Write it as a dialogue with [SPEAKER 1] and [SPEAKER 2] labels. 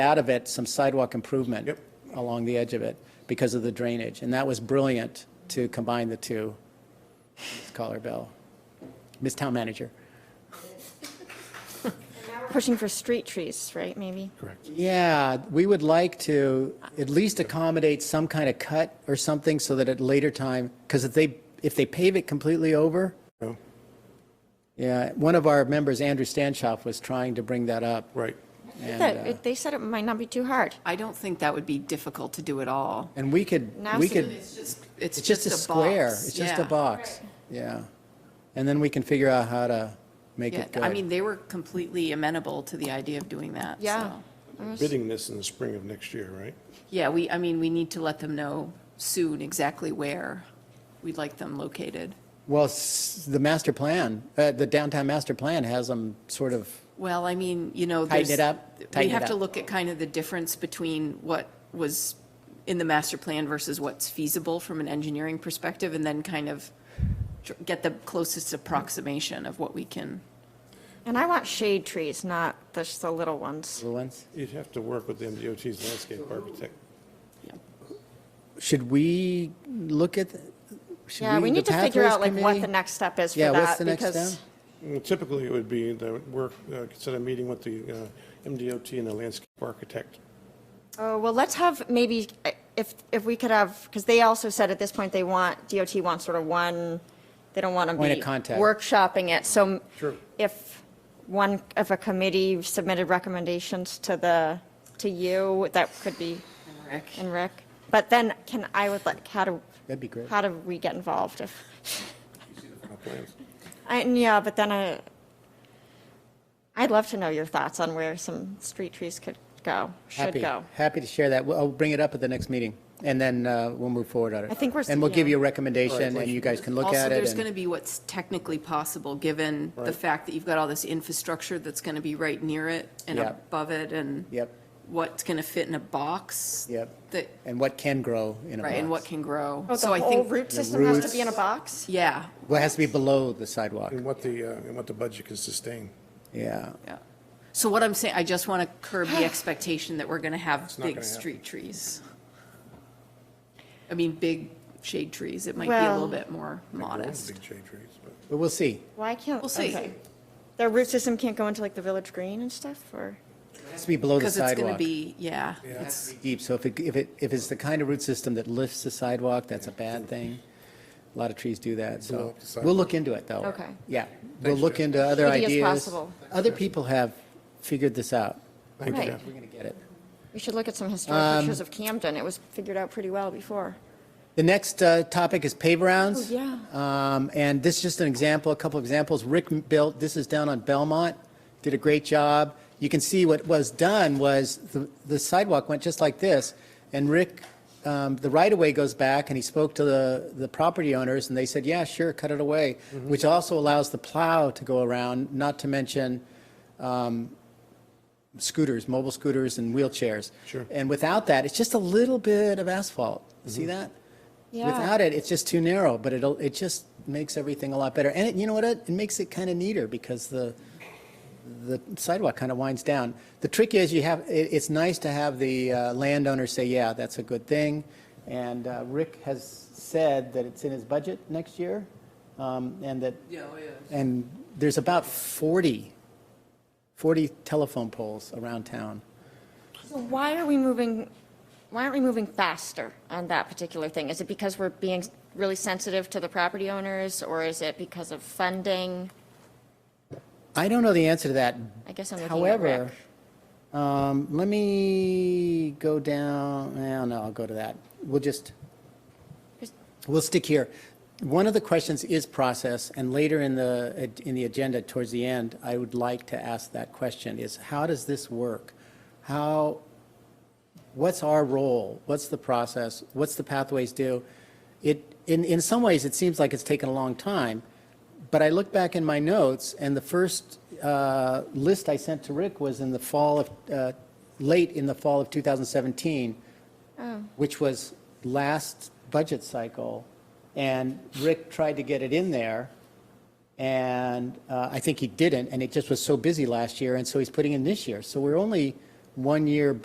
[SPEAKER 1] out of it some sidewalk improvement
[SPEAKER 2] Yep.
[SPEAKER 1] along the edge of it because of the drainage. And that was brilliant to combine the two. Ms. Collar Bell, Ms. Town Manager.
[SPEAKER 3] Pushing for street trees, right, maybe?
[SPEAKER 2] Correct.
[SPEAKER 1] Yeah, we would like to at least accommodate some kind of cut or something so that at later time, because if they, if they pave it completely over,
[SPEAKER 2] No?
[SPEAKER 1] yeah, one of our members, Andrew Stanchoff, was trying to bring that up.
[SPEAKER 2] Right.
[SPEAKER 1] and,
[SPEAKER 3] That-
[SPEAKER 1] uh,
[SPEAKER 3] They said it might not be too hard.
[SPEAKER 4] I don't think that would be difficult to do at all.
[SPEAKER 1] And we could,
[SPEAKER 3] Now
[SPEAKER 1] we
[SPEAKER 3] so
[SPEAKER 1] could.
[SPEAKER 4] It's just, it's
[SPEAKER 1] It's just a
[SPEAKER 4] just a
[SPEAKER 1] square.
[SPEAKER 4] box.
[SPEAKER 1] It's just
[SPEAKER 4] Yeah.
[SPEAKER 1] a box. Yeah. And then we can figure out how to make
[SPEAKER 4] Yeah,
[SPEAKER 1] it good.
[SPEAKER 4] I mean, they were completely amenable to the idea of doing that,
[SPEAKER 3] Yeah.
[SPEAKER 4] so.
[SPEAKER 2] Bidding this in the spring of next year, right?
[SPEAKER 4] Yeah, we, I mean, we need to let them know soon exactly where we'd like them located.
[SPEAKER 1] Well, s- the master plan, uh, the downtown master plan has them sort of,
[SPEAKER 4] Well, I mean, you know,
[SPEAKER 1] Tighten it
[SPEAKER 4] there's.
[SPEAKER 1] up,
[SPEAKER 4] We
[SPEAKER 1] tighten it
[SPEAKER 4] have to
[SPEAKER 1] up.
[SPEAKER 4] look at kind of the difference between what was in the master plan versus what's feasible from an engineering perspective, and then kind of tr- get the closest approximation of what we can.
[SPEAKER 3] And I want shade trees, not just the little ones.
[SPEAKER 1] little ones.
[SPEAKER 2] You'd have to work with MDOT's landscape architect.
[SPEAKER 1] Should we look at, the- should we?
[SPEAKER 3] Yeah, we
[SPEAKER 1] the
[SPEAKER 3] need to figure
[SPEAKER 1] pathways
[SPEAKER 3] out like what
[SPEAKER 1] committee?
[SPEAKER 3] the next step is for
[SPEAKER 1] Yeah,
[SPEAKER 3] that.
[SPEAKER 1] what's the next
[SPEAKER 3] because-
[SPEAKER 1] step?
[SPEAKER 2] Well, Typically, it would be the work, uh, consider meeting with the uh, MDOT and the landscape architect.
[SPEAKER 3] Oh, well, let's have maybe, uh, if, if we could have, because they also said at this point they want, DOT wants sort of one, they don't want to be.
[SPEAKER 1] Point of contact.
[SPEAKER 3] Workshopping it, so. m-
[SPEAKER 2] Sure.
[SPEAKER 3] If one, if a committee submitted recommendations to the, to you, that could be,
[SPEAKER 4] Rick?
[SPEAKER 3] and Rick. But then can, I would like, how do,
[SPEAKER 1] That'd be great.
[SPEAKER 3] how do we get involved if?
[SPEAKER 2] uh, plans.
[SPEAKER 3] I, and yeah, but then I, I'd love to know your thoughts on where some street trees could go, should
[SPEAKER 1] Happy-
[SPEAKER 3] go.
[SPEAKER 1] Happy to share that. We'll- I'll bring it up at the next meeting, and then uh, we'll move forward on it.
[SPEAKER 3] I think we're-
[SPEAKER 1] And we'll give
[SPEAKER 3] yeah.
[SPEAKER 1] you a recommendation, and you guys can look
[SPEAKER 4] Also,
[SPEAKER 1] at it.
[SPEAKER 4] there's
[SPEAKER 1] and-
[SPEAKER 4] going to be what's technically possible, given the
[SPEAKER 2] Right.
[SPEAKER 4] fact that you've got all this infrastructure that's going to be right near it and
[SPEAKER 1] Yep.
[SPEAKER 4] above it, and
[SPEAKER 1] Yep.
[SPEAKER 4] what's going to fit in a box.
[SPEAKER 1] Yep.
[SPEAKER 4] That,
[SPEAKER 1] And what can grow in a box.
[SPEAKER 4] right, and what can grow.
[SPEAKER 3] Oh,
[SPEAKER 4] So I
[SPEAKER 3] the whole
[SPEAKER 4] think,
[SPEAKER 3] root system has to
[SPEAKER 1] roots.
[SPEAKER 3] be in a box?
[SPEAKER 4] yeah,
[SPEAKER 1] Well, it has to be below the sidewalk.
[SPEAKER 2] And what the, uh, and what the budget can sustain.
[SPEAKER 1] Yeah.
[SPEAKER 4] yeah. So what I'm saying, I just want to curb the expectation that we're going to have
[SPEAKER 2] not
[SPEAKER 4] big
[SPEAKER 2] gonna happen.
[SPEAKER 4] street trees. I mean, big shade trees. It might be a
[SPEAKER 3] Well-
[SPEAKER 4] little bit more
[SPEAKER 2] Like, there are
[SPEAKER 4] modest.
[SPEAKER 2] Big shade trees, but.
[SPEAKER 1] But we'll see.
[SPEAKER 3] Why can't?
[SPEAKER 4] We'll see.
[SPEAKER 3] okay. Their root system can't go into like the village green and stuff, or?
[SPEAKER 1] It has to be below the
[SPEAKER 4] Because it's going to
[SPEAKER 1] sidewalk.
[SPEAKER 4] be, yeah.
[SPEAKER 1] It's deep, so if it, if it, if it's the kind of root system that lifts the sidewalk, that's a bad thing. A lot of trees do that,
[SPEAKER 2] Below
[SPEAKER 1] so
[SPEAKER 2] the sidewalk.
[SPEAKER 1] we'll look into it, though.
[SPEAKER 3] Okay.
[SPEAKER 1] Yeah, we'll
[SPEAKER 2] Thanks,
[SPEAKER 1] look
[SPEAKER 2] Jeff.
[SPEAKER 1] into other
[SPEAKER 3] Shitty as
[SPEAKER 1] ideas.
[SPEAKER 3] possible.
[SPEAKER 1] Other people have figured this out.
[SPEAKER 2] Thank you,
[SPEAKER 3] Right.
[SPEAKER 2] Jeff.
[SPEAKER 1] We're gonna get it.
[SPEAKER 3] We should look at some historic pictures of Camden. It was figured out pretty well before.
[SPEAKER 1] The next uh, topic is pave rounds.
[SPEAKER 3] Oh, yeah.
[SPEAKER 1] Um, And this is just an example, a couple examples. Rick built, this is down on Belmont, did a great job. You can see what was done was the- the sidewalk went just like this. And Rick, um, the right-of-way goes back and he spoke to the, the property owners and they said, yeah, sure, cut it away,
[SPEAKER 3] Mm-hmm.
[SPEAKER 1] which also allows the plow to go around, not to mention scooters, mobile scooters and wheelchairs.
[SPEAKER 2] Sure.
[SPEAKER 1] And without that, it's just a little bit of asphalt.
[SPEAKER 4] Mm-hmm.
[SPEAKER 1] See that?
[SPEAKER 3] Yeah.
[SPEAKER 1] Without it, it's just too narrow, but it'll, it just makes everything a lot better. And it, you know what? It, it makes it kind of neater because the, the sidewalk kind of winds down. The trick is you have, it, it's nice to have the uh, landowner say, yeah, that's a good thing. And uh, Rick has said that it's in his budget next year, um, and that
[SPEAKER 4] Yeah, oh, yeah.
[SPEAKER 1] and there's about 40, 40 telephone poles around town.
[SPEAKER 3] So why are we moving, why aren't we moving faster on that particular thing? Is it because we're being really sensitive to the property owners, or is it because of funding?
[SPEAKER 1] I don't know the answer to that.
[SPEAKER 3] I guess I'm looking at
[SPEAKER 1] However,
[SPEAKER 3] Rick.
[SPEAKER 1] um, let me go down, no, no, I'll go to that. We'll just,
[SPEAKER 3] Just-
[SPEAKER 1] we'll stick here. One of the questions is process, and later in the, uh, in the agenda, towards the end, I would like to ask that question, is how does this work? How, what's our role? What's the process? What's the pathways do? It, in, in some ways, it seems like it's taken a long time, but I look back in my notes, and the first uh, list I sent to Rick was in the fall of, uh, late in the fall of 2017, which was last budget cycle, and Rick tried to get it in there, and uh, I think he didn't, and it just was so busy last year, and so he's putting in this year. So we're only one year